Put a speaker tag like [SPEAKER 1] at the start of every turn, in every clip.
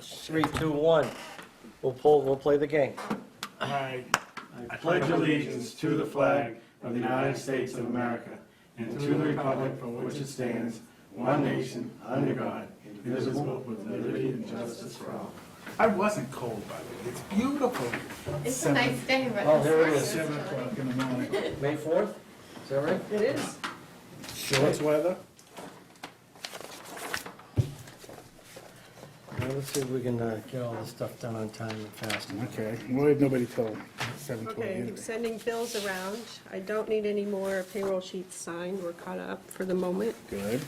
[SPEAKER 1] Three, two, one. We'll pull, we'll play the game.
[SPEAKER 2] I I pledge allegiance to the flag of the United States of America and to the republic for which it stands, one nation, under God, indivisible, with liberty and justice for all. I wasn't cold, by the way. It's beautiful.
[SPEAKER 3] It's a
[SPEAKER 2] Seven-
[SPEAKER 3] nice day, but.
[SPEAKER 2] Oh, there it
[SPEAKER 3] it's
[SPEAKER 2] is, seven o'clock in the morning.
[SPEAKER 1] May fourth, is that right?
[SPEAKER 4] It is.
[SPEAKER 2] Shorts weather?
[SPEAKER 1] Now, let's see if we can uh, get all this stuff done on time and fast.
[SPEAKER 5] Okay, why did nobody tell him? Seven twelve
[SPEAKER 4] Okay, I'm
[SPEAKER 5] anyway.
[SPEAKER 4] sending bills around. I don't need any more payroll sheets signed. We're caught up for the moment.
[SPEAKER 5] Good.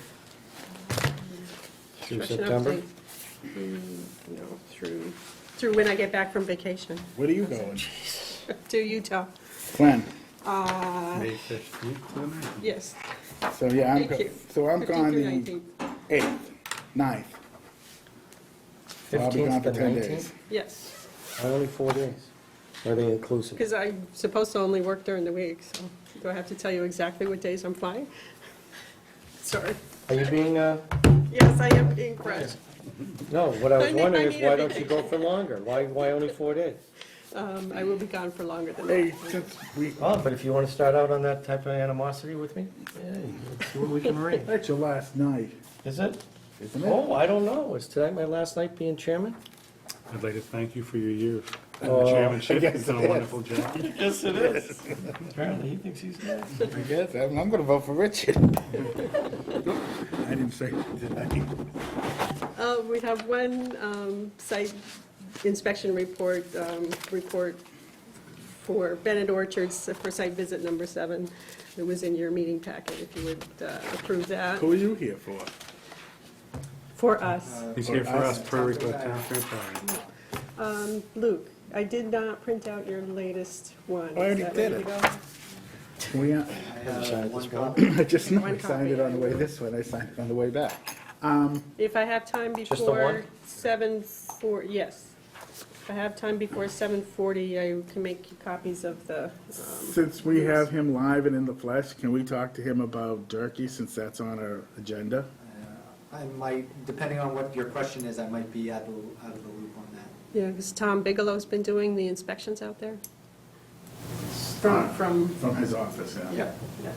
[SPEAKER 1] Through
[SPEAKER 4] Freshen up
[SPEAKER 1] September?
[SPEAKER 4] the- mm, No, through, through when I get back from vacation
[SPEAKER 5] Where are you going?
[SPEAKER 4] to Utah.
[SPEAKER 5] When?
[SPEAKER 2] May fifteenth to the ninth.
[SPEAKER 4] Yes,
[SPEAKER 5] So, yeah, I'm,
[SPEAKER 4] thank
[SPEAKER 5] go-
[SPEAKER 4] you.
[SPEAKER 5] so I'm
[SPEAKER 4] 15th
[SPEAKER 5] gone
[SPEAKER 4] through
[SPEAKER 5] the
[SPEAKER 4] 19th.
[SPEAKER 5] eighth, ninth. So I'll be gone
[SPEAKER 1] Fifteenth
[SPEAKER 5] for
[SPEAKER 1] to
[SPEAKER 5] ten
[SPEAKER 1] nineteenth?
[SPEAKER 5] days.
[SPEAKER 4] Yes,
[SPEAKER 1] Only four days. Are they inclusive?
[SPEAKER 4] because I'm supposed to only work during the week, so do I have to tell you exactly what days I'm flying? Sorry.
[SPEAKER 1] Are you being, uh,
[SPEAKER 4] Yes, I am being crushed.
[SPEAKER 1] no, what I
[SPEAKER 4] I
[SPEAKER 1] was
[SPEAKER 4] need- I
[SPEAKER 1] wondering is
[SPEAKER 4] need
[SPEAKER 1] why
[SPEAKER 4] a
[SPEAKER 1] don't you go for longer? Why, why only four days?
[SPEAKER 4] Um, I will be gone for longer than
[SPEAKER 5] Hey,
[SPEAKER 4] that.
[SPEAKER 5] since we,
[SPEAKER 1] Oh, but if you want to start out on that type of animosity with me, yeah, let's see what we can arrange.
[SPEAKER 5] that's your last night,
[SPEAKER 1] Is it?
[SPEAKER 5] isn't it?
[SPEAKER 1] Oh, I don't know. Is today my last night being chairman?
[SPEAKER 2] I'd like to thank you for your years.
[SPEAKER 1] Oh,
[SPEAKER 2] The chairmanship,
[SPEAKER 5] yes,
[SPEAKER 2] you've done
[SPEAKER 5] Uh, it
[SPEAKER 2] a
[SPEAKER 5] is.
[SPEAKER 2] wonderful job.
[SPEAKER 1] Yes, it is. Apparently, he thinks he's next.
[SPEAKER 5] I guess, I'm, I'm gonna vote for Richard. I didn't say, it, did I?
[SPEAKER 4] Uh, We have one um, site inspection report, um, report for Bennett Orchards for site visit number seven. It was in your meeting packet, if you would uh, approve that
[SPEAKER 5] Who are you here for?
[SPEAKER 4] for us.
[SPEAKER 5] Uh,
[SPEAKER 2] He's here for us, per request, town fair party.
[SPEAKER 4] Luke, I did not print out your latest one. Is
[SPEAKER 5] I already
[SPEAKER 4] that
[SPEAKER 5] did
[SPEAKER 4] ready
[SPEAKER 5] it.
[SPEAKER 4] to go?
[SPEAKER 5] We, uh, I just know I signed it on the way this way, I signed it on the way back.
[SPEAKER 4] If I have time
[SPEAKER 1] the
[SPEAKER 4] before
[SPEAKER 1] one?
[SPEAKER 4] seven four, yes. If I have time before seven forty, I can make you copies of the, um,
[SPEAKER 5] Since we have him live and in the flesh, can we talk to him about Durkey, since that's on our agenda?
[SPEAKER 6] I might, depending on what your question is, I might be out of, out of the loop on that.
[SPEAKER 4] yeah, because Tom Bigelow's been doing the inspections out there. From, from,
[SPEAKER 5] From his office, yeah.
[SPEAKER 4] yeah, yeah.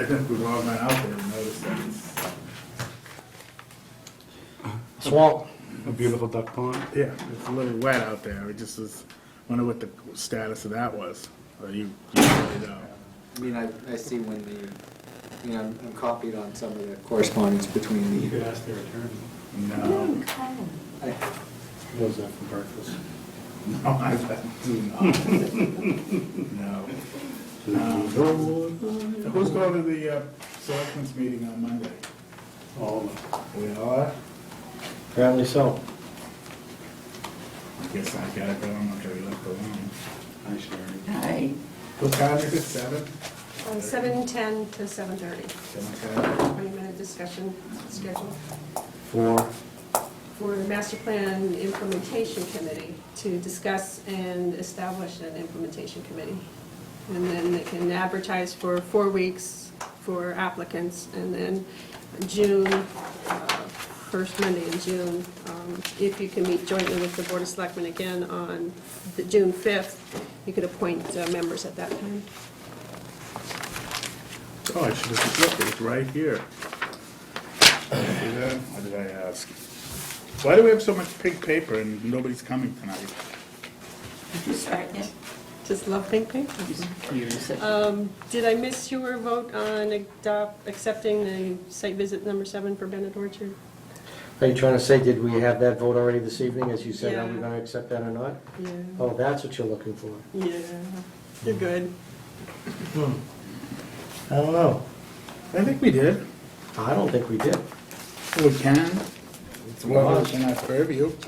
[SPEAKER 5] I think we've all gone out there and noticed that it's,
[SPEAKER 1] Swamp.
[SPEAKER 2] A beautiful duck pond.
[SPEAKER 5] yeah, it's a little wet out there. It just was, wonder what the status of that was. Or you, you really know.
[SPEAKER 6] I mean, I, I see when the, you know, I'm I'm copied on some of the correspondence between
[SPEAKER 2] You
[SPEAKER 6] the,
[SPEAKER 2] could ask their attorney.
[SPEAKER 5] No,
[SPEAKER 6] I-
[SPEAKER 2] Those that for breakfast.
[SPEAKER 5] no, I do not. No. Um, Who's going to the, uh, selectmen's meeting on Monday?
[SPEAKER 2] All of them.
[SPEAKER 5] We are?
[SPEAKER 1] Apparently so.
[SPEAKER 5] I guess I gotta go. I'm not gonna be left alone.
[SPEAKER 2] Hi, Sherry.
[SPEAKER 5] What time is it? Seven?
[SPEAKER 4] Uh, 7:10 to 7:30,
[SPEAKER 5] Seven o'clock?
[SPEAKER 4] 20-minute discussion schedule
[SPEAKER 1] For,
[SPEAKER 4] for the Master Plan Implementation Committee to discuss and establish an implementation committee. And then they can advertise for four weeks for applicants, and then June, uh, first Monday in June, um, if you can meet jointly with the Board of Selectmen again on the June 5th, you could appoint uh, members at that time.
[SPEAKER 5] Oh, I should have looked, it's right here. See that? What did I ask? Why do we have so much pink paper and nobody's coming tonight?
[SPEAKER 7] Second.
[SPEAKER 4] Just love pink paper. Um, Did I miss your vote on adopt, accepting the site visit number seven for Bennett Orchard?
[SPEAKER 1] are you trying to say, did we have that vote already this evening, as you said, are we
[SPEAKER 4] Yeah.
[SPEAKER 1] gonna accept that or not?
[SPEAKER 4] Yeah.
[SPEAKER 1] Oh, that's what you're looking for.
[SPEAKER 4] Yeah, you're good.
[SPEAKER 1] I don't know.
[SPEAKER 5] I think we did.
[SPEAKER 1] I don't think we did.
[SPEAKER 5] We can. It's well within our purview.